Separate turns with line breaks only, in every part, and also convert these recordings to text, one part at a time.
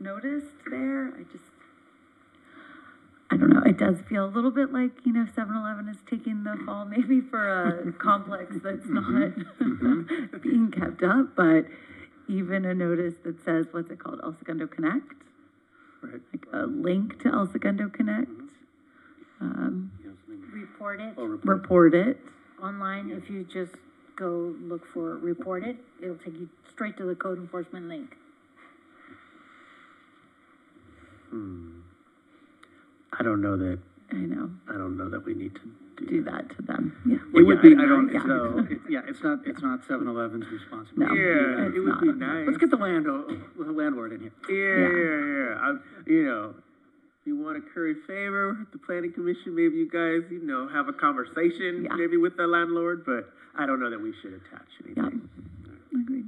noticed there. I just, I don't know. It does feel a little bit like, you know, 7 Eleven is taking the fall maybe for a complex that's
Mm-hmm.
not being kept up, but even a notice that says, what's it called? El Segundo Connect?
Right.
Like a link to El Segundo Connect. Um,
report it
Oh, report.
report it.
online. If you just go look for report it, it'll take you straight to the code enforcement link.
I don't know that,
I know.
I don't know that we need to do
Do
that.
that to them. Yeah.
It would be, I don't,
yeah.
so, it- yeah, it's not, it's not seven eleven's responsibility.
No.
Yeah,
it's
it would be
not.
nice.
Let's get the land, uh, the landlord in here.
Yeah, yeah, yeah. I, you know, if you want to curry favor with the planning commission, maybe you guys, you know, have a conversation,
Yeah.
maybe with the landlord. But I don't know that we should attach
Yeah.
anything.
Agreed.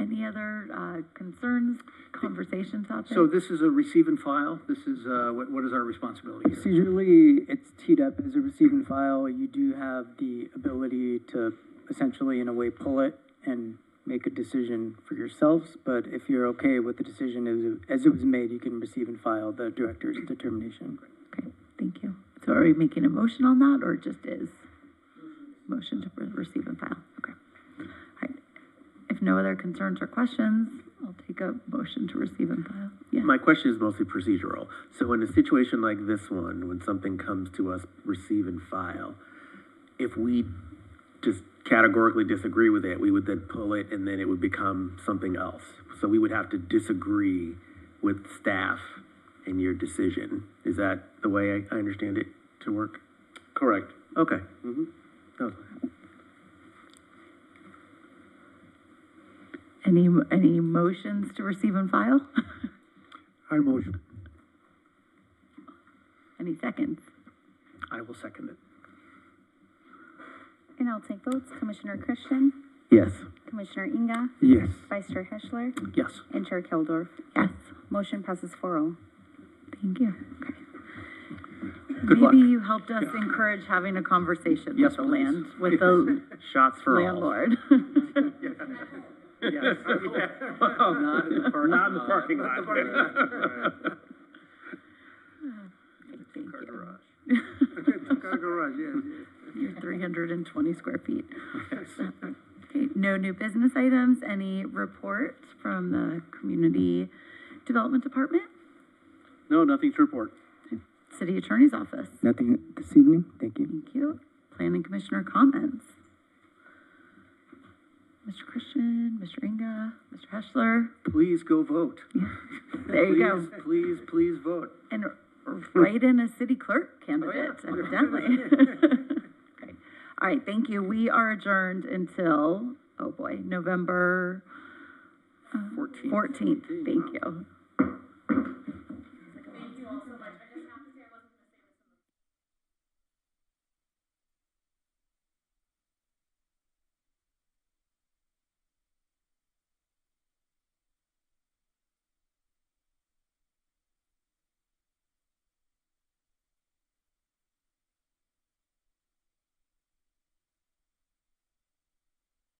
Any other uh, concerns, conversations out there?
So this is a receive and file, this is, uh, what, what is our responsibility here?
Procedurally, it's teed up as a receive and file. You do have the ability to essentially, in a way, pull it and make a decision for yourselves. But if you're okay with the decision as, as it was made, you can receive and file the director's determination.
Okay, thank you. So are we making a motion on that or just is? Motion to re- receive and file, okay. All right. If no other concerns or questions, I'll take a motion to receive and file. Yeah,
My question is mostly procedural. So in a situation like this one, when something comes to us, receive and file, if we just categorically disagree with it, we would then pull it and then it would become something else. So we would have to disagree with staff in your decision. Is that the way I, I understand it to work?
Correct.
Okay. Okay.
any, any motions to receive and file?
I motion.
Any seconds?
I will second it.
And I'll take votes. Commissioner Christian,
Yes.
Commissioner Inga,
Yes.
Vice Chair Heschler,
Yes.
and Chair Keldorf.
Yes.
Motion passes oh. 4-0.
Thank you.
Good luck.
Maybe you helped us encourage having a conversation with
Yes,
the
please.
land, with the
Shots for all.
landlord.
Yes. Oh, Not in the parking
Not in the parking lot.
Thank you.
garage, yeah.
Your three hundred and twenty square feet. Okay, no new business items, any reports from the Community Development Department,
No, nothing to report.
City Attorney's Office?
Nothing this evening? Thank you.
Thank you. Planning Commissioner comments? Mr. Christian, Mr. Inga, Mr. Heschler?
Please go vote.
There you go.
Please, Please, please vote.
And write in a city clerk candidate, evidently. Okay. All right, thank you. We are adjourned until, oh boy, November uh,
Fourteen.
fourteenth. Thank you.